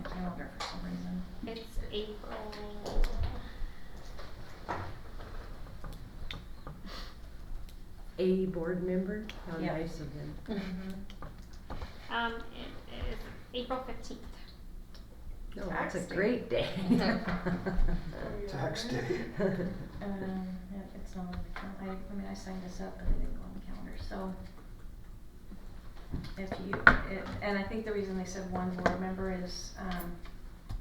for some reason. It's April. A board member? How Yeah. nice of him. Um, it is April fifteenth. No, Oh, that's a Tax day. great day. Tax day. Um, yeah, it's not on the cal, I, I mean, I signed this up, but it didn't go on the calendar, so. If you, it, and I think the reason they said one board member is, um,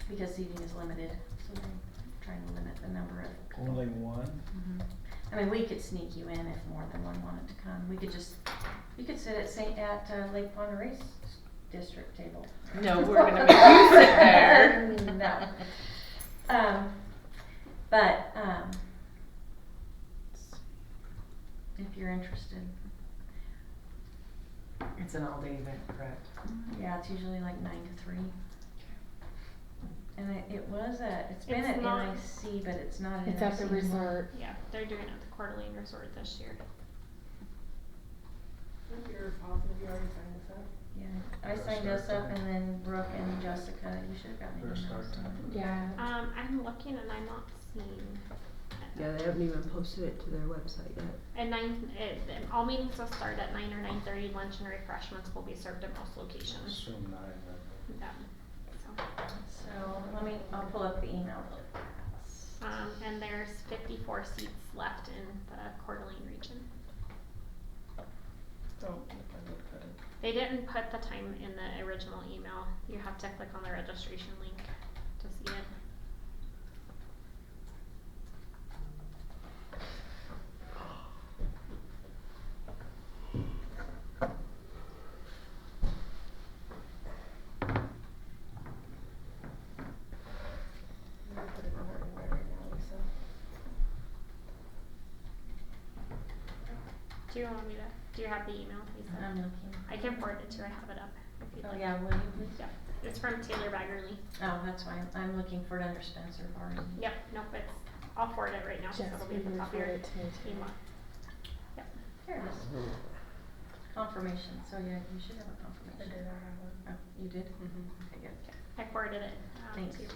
because seating is limited, so they're trying to limit the number of people. Only one? Mhm. I mean, we could sneak you in if more than one wanted to come. We could just, you could sit at Saint, at uh, Lake Pond Race District table. No, we're gonna make you sit there. No. Um, but, um, if you're interested, It's an all-day event, correct? yeah, it's usually like nine to three. And it, it was a, it's been It's at not- NIC, but it's not at NIC. It's at the anymore. resort. Yeah, they're doing it at the Coeur d'Alene Resort this year. Yeah, I Yeah, signed us start up time. and then Brooke and Jessica, you should have gotten Yeah, an start announcement. time. Yeah. Um, I'm looking and I'm not seeing. Yeah, they haven't even posted it to their website yet. At nine, it, and all meetings will start at nine or nine thirty. Lunch and refreshments will be served at most locations. Assume nine, I Yeah, so. So let me, I'll pull up the email. Um, and there's fifty-four seats left in the Coeur d'Alene region. Don't look at it. They didn't put the time in the original email. You have to click on the registration link to see it. I'm gonna put it on our invite right now, Lisa. Do you want me to, do you have the email, Lisa? Um, I'm looking. I can forward it to you. I have it up. if you'd Oh, like. yeah, will you please? Yep. It's from Taylor Baggerly. Oh, that's why, I'm- I'm looking for it under Spencer Barton. Yep, nope, it's, I'll forward it right now, so Jess, it'll be will at the you top of your forward email. it to me too? Yep. There it is. Confirmation, so yeah, you should have a confirmation. Oh, you did? Mm-hmm. Okay, good. I forwarded it, um, to Thanks. you.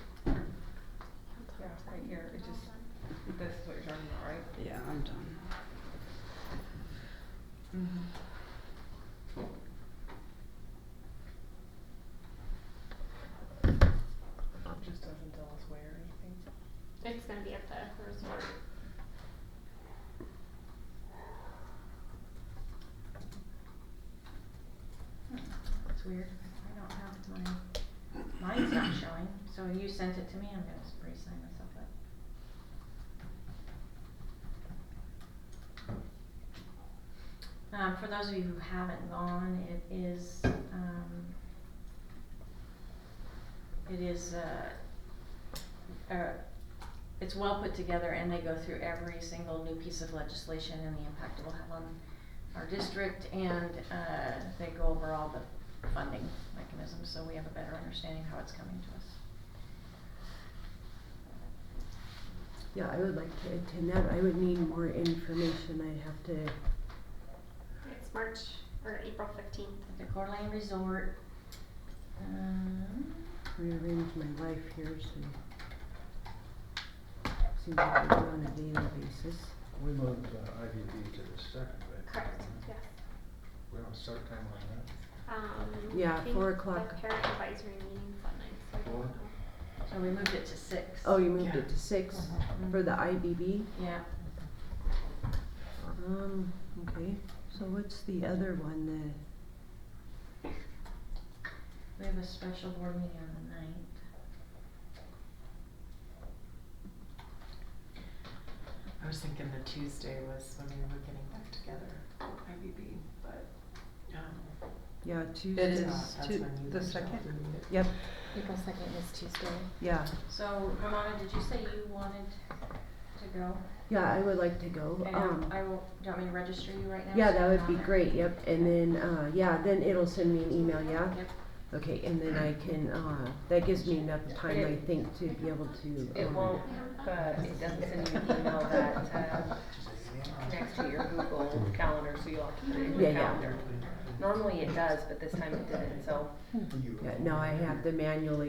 Yeah, right here, it just, this is what you're talking about, right? Yeah, I'm done. Mm-hmm. It just doesn't tell us where or anything. It's gonna be at the resort. That's weird. I don't have my, mine's not showing, so you sent it to me, I'm gonna s- re-sign myself up. Um, for those of you who haven't gone, it is, um, it is, uh, uh, it's well put together and they go through every single new piece of legislation and the impact it will have on our district and, uh, they go over all the funding mechanisms, so we have a better understanding how it's coming to us. Yeah, I would like to attend that. I would need more information. I'd have to, It's March or April fifteenth. At the Coeur d'Alene Resort, um, rearrange my life here, so. Seems like I do on a daily basis. We moved uh, IVB to the second, right? Correct, yes. We don't start time on Um, Yeah, I think four o'clock. The parent advisory meeting's that night, so I don't Four? know. so we moved it to six. Oh, you moved Yeah. it to six Mhm. for the IBB? Yeah, Um, okay. So what's the other one, we have a special board meeting on the ninth. I was thinking the Tuesday was when we were getting back together, IBB, but, um, the, yeah, it Tuesdays? is not, that's Tu- when you the reached out second? to me. Yep, April second is Tuesday. yeah. So Ramona, did you say you wanted to go? Yeah, I would like to go. And Um, I will, do you want me to register you right now? yeah, so that you're would on be there? great, yep. And then, uh, yeah, then it'll send me an email, yeah? Yep. Okay, and then I can, uh, that gives me enough time, I think, to be able to. It um, won't, but it doesn't send you an email that, uh, next to your Google Calendar, so you'll have to put it in Yeah, your yeah. calendar. Normally it does, but this time it didn't, so. that. You- Yeah, no, I have to manually